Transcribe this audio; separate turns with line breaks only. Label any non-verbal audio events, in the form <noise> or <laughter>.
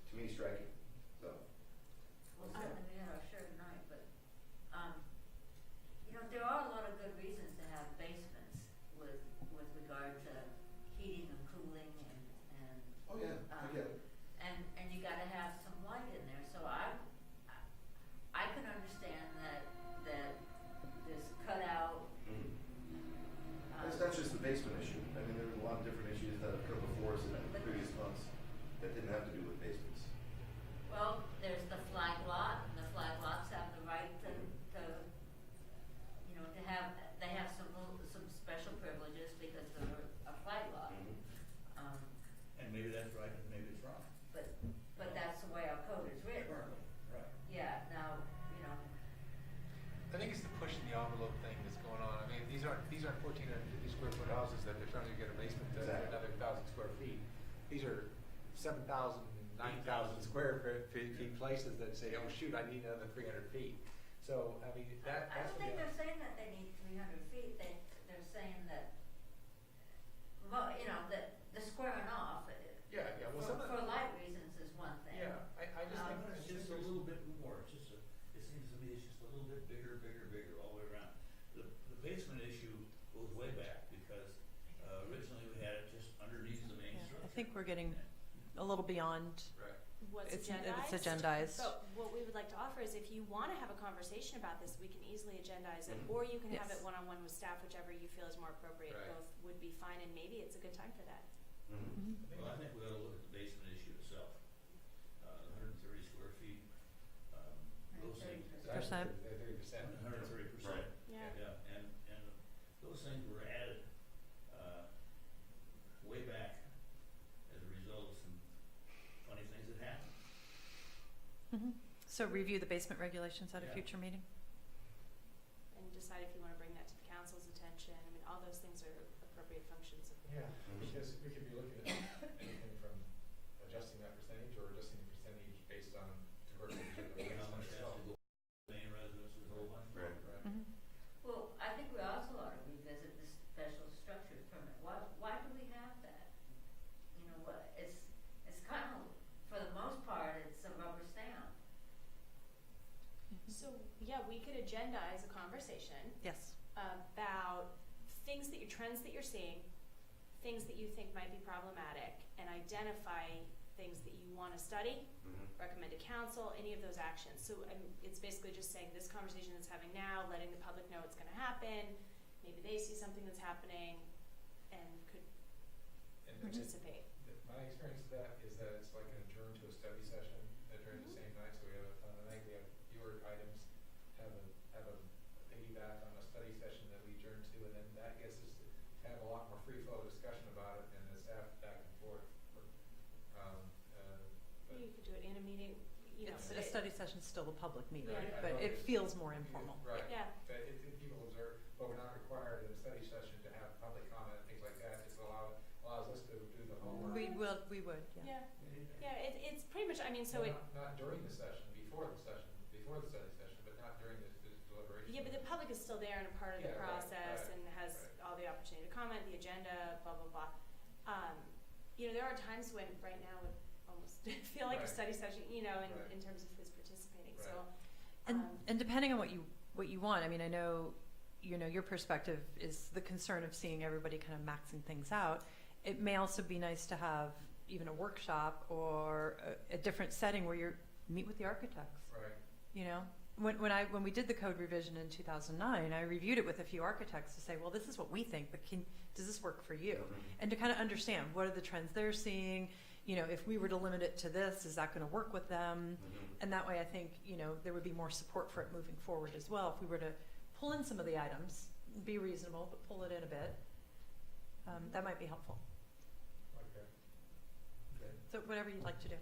um, um, Uh, Um,
fifty places that say, oh, shoot, I need another three hundred feet. So, I mean, that,
I
that's.
don't
the
think
thing.
they're saying that they need three hundred feet, they, they're saying that, well, you know, that the squaring off, uh,
Yeah, yeah, well,
for,
some of
for
the-
light reasons is one thing.
Yeah, I, I just
Um,
think.
But
It's
it's
just a little bit more, it's just a, it seems to me it's just a little bit bigger, bigger, bigger all the way around. The, the basement issue goes way back because uh, originally we had it just underneath the main
Yeah, I
structure.
think we're getting- a little beyond.
Right.
what's
It's-
agendized. Oh.
it's agendized.
But what we would like to offer is if you want to have a conversation about this, we can easily agendize it,
Mhm.
or you can have
Yes.
it one-on-one with staff, whichever you feel is more appropriate.
Right.
Both would be fine, and maybe it's a good time for that.
Well, I think we ought to look at the basement issue itself. Uh, hundred and thirty square feet, um, those things.
130%.
Percent.
Thirty percent.
Hundred and thirty percent.
Right.
Yeah.
Yeah, and, and those things were added, uh, way back as a result of some funny things that happened.
Mhm. So review the basement regulations at a
Yeah.
future meeting?
And decide if you want to bring that to the council's attention. I mean, all those things are appropriate functions of the
Yeah, because we could be looking at anything from adjusting that percentage or adjusting the percentage based on diversity of the
You know, how
basement
much has
itself.
to go, main residence, the whole bunch.
Right.
Right.
Mhm.
Well, I think we also ought to revisit the special structures permit, why, why do we have that? You know, what, it's, it's kind of, for the most part, it's a rubber stamp.
So, yeah, we could agendize a conversation
Yes.
about things that you trends that you're seeing, things that you think might be problematic, and identify things that you want to study recommend to council, any of those actions. So um, it's basically just saying this conversation that's having now, letting the public know it's going to happen. Maybe they see something that's happening and could
And then it's-
participate.
th- my experience of that is that it's like an adjourn to a study session, adjourn the
Mhm.
Mm-hmm.
same night, so we have, on the night we have fewer items, have a, have a piggyback on a study session that we adjourn to, and then that gets us to have a lot more free flow discussion about it and the staff back and forth. Um, uh, but
You could do it in a meeting. You know,
It's,
but
a
it-
study session's still a public meeting,
Right,
I
but
know
it
it's-
feels more informal.
Right.
Yeah,
that if, if people observe, but we're not required in a study session to have public comment, things like that, it's allowed, allows us to do the homework.
We will, we would, yeah.
yeah, yeah. It, it's pretty much. I mean, so it.
Not, not during the session, before the session, before the study session, but not during the, the deliberation.
Yeah, but the public is still there and a part of the
Yeah, right,
process
right,
and has
right.
all the opportunity to comment, the agenda, blah blah blah. Um, you know, there are times when right now it almost <laughs> feel like
Right.
a study session. You know, in,
Right.
in terms of who's participating.
Right.
So.
And,
um,
and depending on what you, what you want, I mean, I know, you know, your perspective is the concern of seeing everybody kind of maxing things out. It may also be nice to have even a workshop or a, a different setting where you're, meet with the architects.
Right,
you know when, when i when we did the code revision in 2009 i reviewed it with a few architects to say well this is what we think but can does this work for you and to kind of understand what are the trends they're seeing you know if we were to limit it to this is that going to work with them and that way i think you know there would be more support for it moving forward as well if we were to pull in some of the items be reasonable but pull it in a bit um, that might be helpful
okay. Okay.
so whatever you'd like to do